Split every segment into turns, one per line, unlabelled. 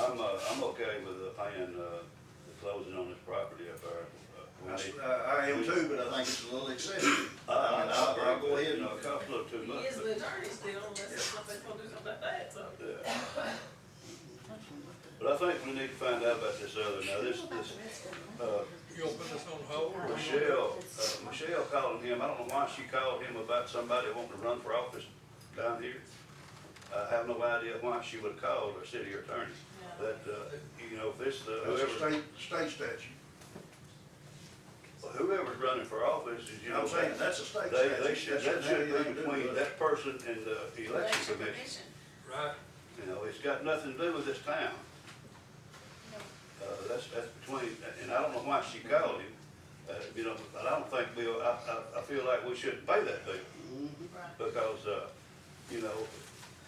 Uh, I'm okay with uh, paying, uh, the closing on this property up there. Uh, I
That's-
mean,
I, I am too, but I think it's a little excessive.
I, I,
I'll,
I
I'll
agree,
go
but,
ahead
you
and,
know, it costs a little too
He
much.
is
but-
the attorney still, unless somebody's gonna do something about that, so.
Yeah. But I think we need to find out about this other, now, this, this, uh,
You gonna put this on hold? or you gonna-
Michelle, uh, Michelle called him, I don't know why she called him about somebody wanting to run for office down here. I have no idea why she would've called our city attorney,
Yeah.
that, uh, you know, if this, uh,
that's a
whoever,
state, state statute.
whoever's running for office is, you know.
I'm saying, that's a state
They, they
statute.
should,
That's
that
what
should be
they do
between
with it.
that person and the election
Election
commission.
commission.
Right,
You know, it's got nothing to do with this town. Uh, that's, that's between, and I don't know why she called him, uh, you know, but I don't think we, I, I, I feel like we shouldn't pay that bill,
Right.
because, uh, you know,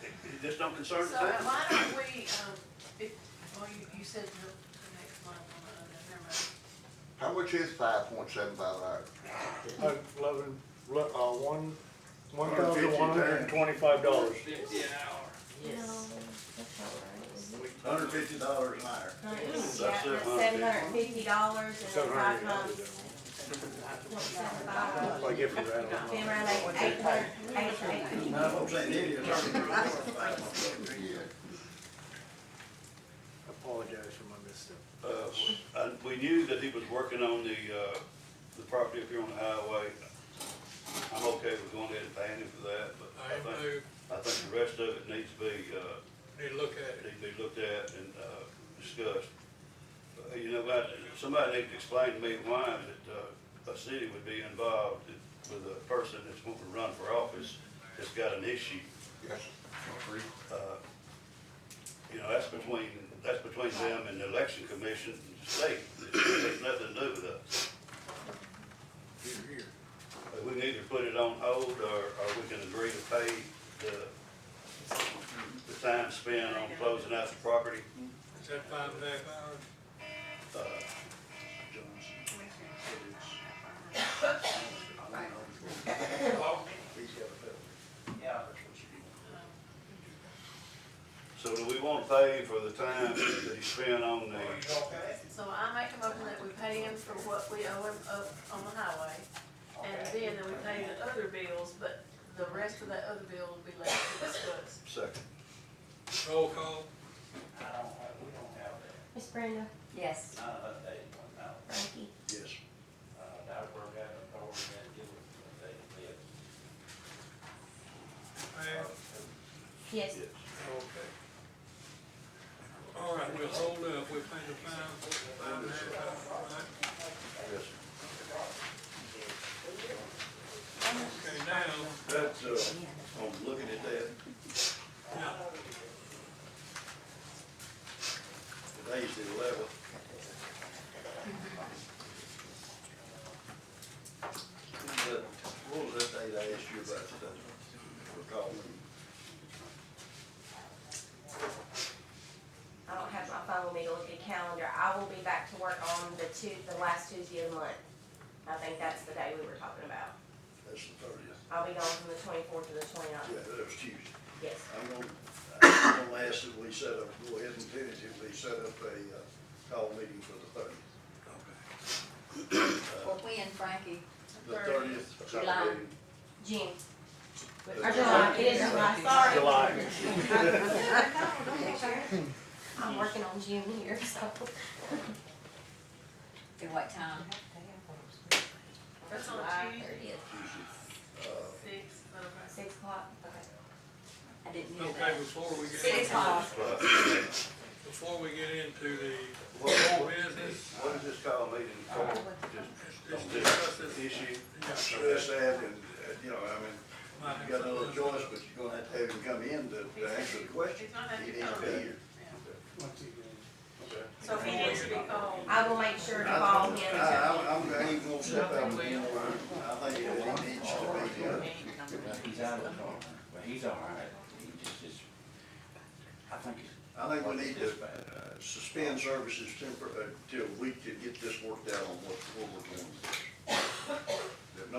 it, it just don't concern the
So uh,
town.
why don't we, um, if, well, you, you said the, the next one, uh, never mind.
How much is five point seven five an hour?
Uh, Eleven, le- uh, one, one thousand one hundred and twenty-five dollars.
fifty an hour.
Yes.
Hundred fifty dollars an hour.
Yeah,
That's it, huh?
seven hundred and fifty dollars and then five times,
Like if you ran a
then around eight, eight hundred, eight, eight.
Now, I'm saying, it is already
Yeah.
Apologize for my misstep.
Uh, and we knew that he was working on the, uh, the property up here on the highway. I'm okay with going ahead and paying him for that, but
I
I
ain't
think,
moved,
I think the rest of it needs to be, uh,
need to look at it.
need to be looked at and, uh, discussed. Uh, You know, but somebody needs to explain to me why that, uh, a city would be involved with a person that's wanting to run for office that's got an issue.
Yes.
Uh, You know, that's between, that's between them and the election commission and the state. It has nothing to do with us.
Here, here.
Uh, We can either put it on hold or, or we can agree to pay the, the time spent on closing out the property.
Is that five and a half hours?
Uh,
Yeah.
So do we want to pay for the time that he spent on the,
So I make a motion that we pay him for what we owe him up on the highway, and then that we pay the other bills, but the rest of that other bill will be left to discuss.
second,
Roll call,
I don't have, we don't have that,
Miss Brenda? Yes.
not an updated one, no.
Frankie?
yes,
Uh, that we're gonna, that we're gonna do it, they, they,
man.
Yes.
yes.
Okay. All right, we'll hold up, we're paying the fine, five and a half hours, all right?
Yes.
Okay, now,
That's, uh, I'm looking at that,
now,
today's the eleventh. What was that date I asked you about today? Recall me.
I don't have my phone with me to look at calendar. I will be back to work on the two, the last Tuesday of the month. I think that's the day we were talking about.
That's the thirtieth.
I'll be gone from the twenty-fourth to the 29th.
Yeah, that was Tuesday.
Yes.
I'm gonna, I'm gonna ask that we set up, go ahead and tentatively set up a, uh, call meeting for the thirtieth.
For when, Frankie?
The thirtieth.
July.
June. Or July, it is July, sorry.
July.
I'm working on June here, so.
At what time?
That's on
July
Tuesday.
30th.
Six, okay.
Six o'clock, okay.
I didn't know
okay,
that.
before we get,
Six o'clock.
before we get into the
What, what-
business,
what is this call meeting for?
let's
Just,
discuss
just
this.
issue?
Yeah,
Stress that and, uh, you know, I mean,
might have
you got no other
something.
choice, but you're gonna have to have him come in to, to answer the question.
He's not
He
having
needs to be
to
here.
So he needs to be called.
I will make sure to call him.
I, uh, I, I'm, I ain't gonna step out. with him. I think that he needs to be here.
He's out of the car, but he's all right. He just, just, I think he's
I think we need to uh, suspend services uh, tempor, until we can get this worked out on what, what we're doing. That no